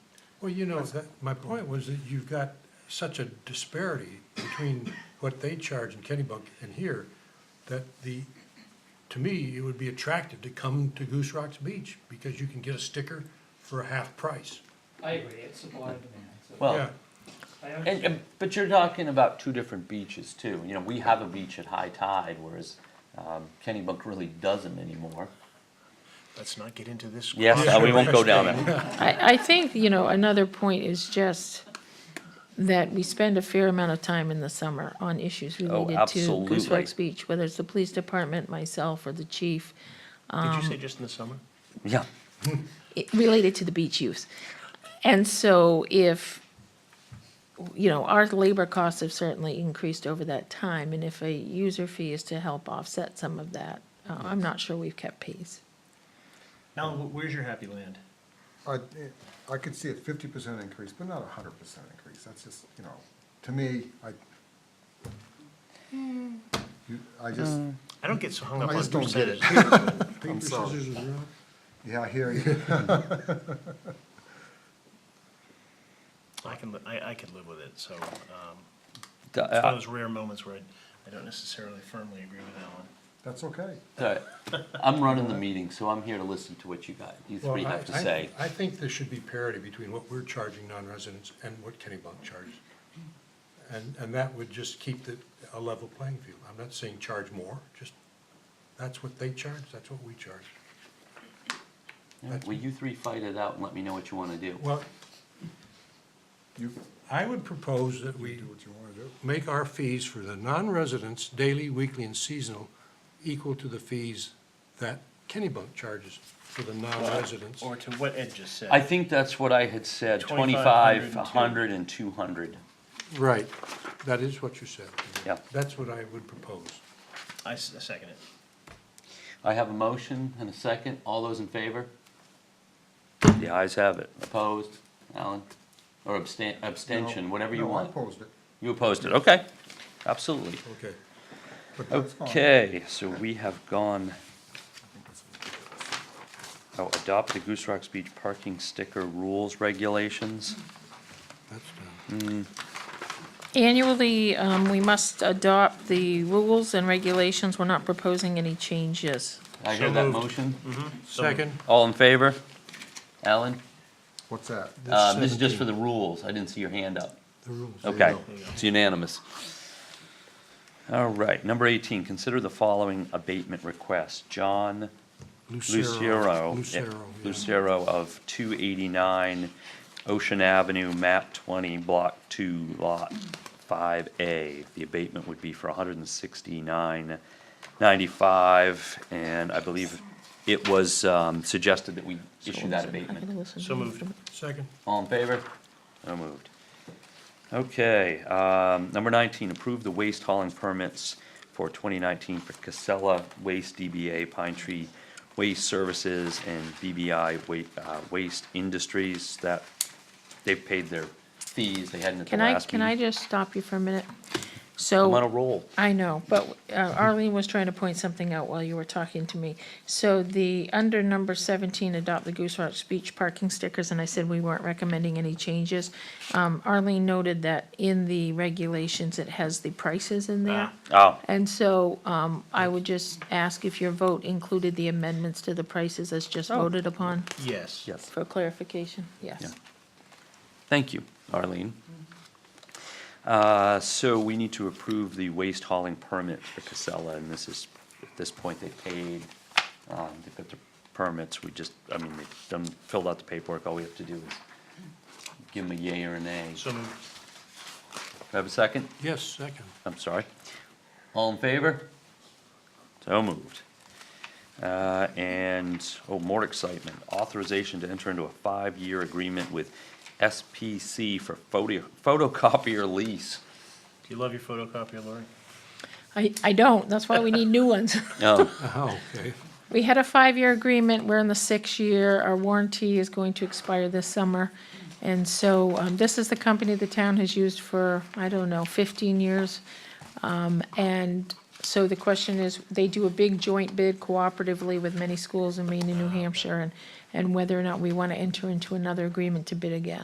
Well, you know, that, my point was that you've got such a disparity between what they charge in Kennybunk and here, that the, to me, it would be attractive to come to Goose Rocks Beach, because you can get a sticker for a half price. I agree, it's supply and demand, so. Well, Yeah, I And, understand. and, but you're talking about two different beaches too. You know, we have a beach at high tide, whereas um, Kennybunk really doesn't anymore. Let's not get into this. Yes, uh, we won't go down there. I, I think, you know, another point is just that we spend a fair amount of time in the summer on issues related to Goose absolutely. Rock's Beach, whether it's the police department, myself, or the chief, Did you say Um. just in the summer? Yeah. it- related to the beach use. And so if, you know, our labor costs have certainly increased over that time, and if a user fee is to help offset some of that, uh, I'm not sure we've kept pace. Alan, wh- where's your happy land? I, I could see a fifty percent increase, but not a hundred percent increase, that's just, you know, to me, I, you, I just, I don't get so hung up I on just don't who get said it. it. I'm paper, sorry. scissors, and rock. yeah, I hear you, I can, li- I, I could live with it, so, um, D- it's one of uh, those rare moments where I, I don't necessarily firmly agree with Alan. that's okay. uh, I'm running the meeting, so I'm here to listen to what you got, you Well, three I- have to I- say. I think there should be parity between what we're charging non-residents and what Kennybunk charges. And, and that would just keep the, a level playing field. I'm not saying charge more, just, that's what they charge, that's what we charge. Will you three fight it out and let me know what you want to do? Well, You I would propose that you we do what you wanna do. make our fees for the non-residents, daily, weekly, and seasonal, equal to the fees that Kennybunk charges for the non-residents. Or to what Ed just said. I think that's what I had said, 25, 25, 100, and 200. Right, that is what you said. Yeah. That's what I would propose. I s- I second it. I have a motion and a second. All those in favor? The ayes have it. Opposed? Alan? Or abstain, abstention, whatever you No, want. I opposed it, You opposed it, okay, absolutely. Okay. but that's fine. Okay, so we have gone, oh, adopt the Goose Rocks Beach parking sticker rules regulations. That's done. Annually, um, we must adopt the rules and regulations. We're not proposing any changes. I hear So that moved. motion? So- Second. All in favor? Alan? What's that? Uh, this is just for the rules, I didn't see your hand up. The rules. Okay, it's unanimous. All right, number eighteen, consider the following abatement request. John Lucero. Lucero, yeah, yeah. Lucero of two eighty-nine Ocean Avenue, map twenty, block two, lot five A. The abatement would be for hundred and sixty-nine ninety-five, and I believe it was, um, suggested that we issue that I'm abatement. gonna listen. So moved. Second. All in favor? So moved. Okay, um, number nineteen, approve the waste hauling permits for twenty nineteen for Casella Waste DBA Pine Tree Waste Services and BBI Wa- uh, Waste Industries that they've paid their fees, they hadn't at the Can I, last can I meeting. just stop you for a minute? I'm on a So, roll. I know, but uh, Arlene was trying to point something out while you were talking to me. So the, under number seventeen, adopt the Goose Rock speech parking stickers, and I said we weren't recommending any changes. Um, Arlene noted that in the regulations, it has the prices in there. Oh, And so um, I would just ask if your vote included the amendments to the prices as just voted upon Yes. yes. Oh. for clarification? Yeah. Yes. Thank you, Arlene. Uh, So we need to approve the waste hauling permit for Casella, and this is, at this point, they paid, um, they've got the permits, we just, I mean, they've done, filled out the paperwork, all we have to do is give them a yay or a nay. Do So moved. I have a second? Yes, second. I'm sorry. All in favor? So moved. Uh, And, oh, more excitement, authorization to enter into a five-year agreement with SPC for photo photocopier lease. Do you love your photocopier, Lori? I, I don't, that's why we need new ones. No, Oh, okay. We had a five-year agreement, we're in the sixth year, our warranty is going to expire this summer. And so um, this is the company the town has used for, I don't know, 15 years. Um, And so the question is, they do a big joint bid cooperatively with many schools in Maine and New Hampshire, and, and whether or not we want to enter into another agreement to bid again.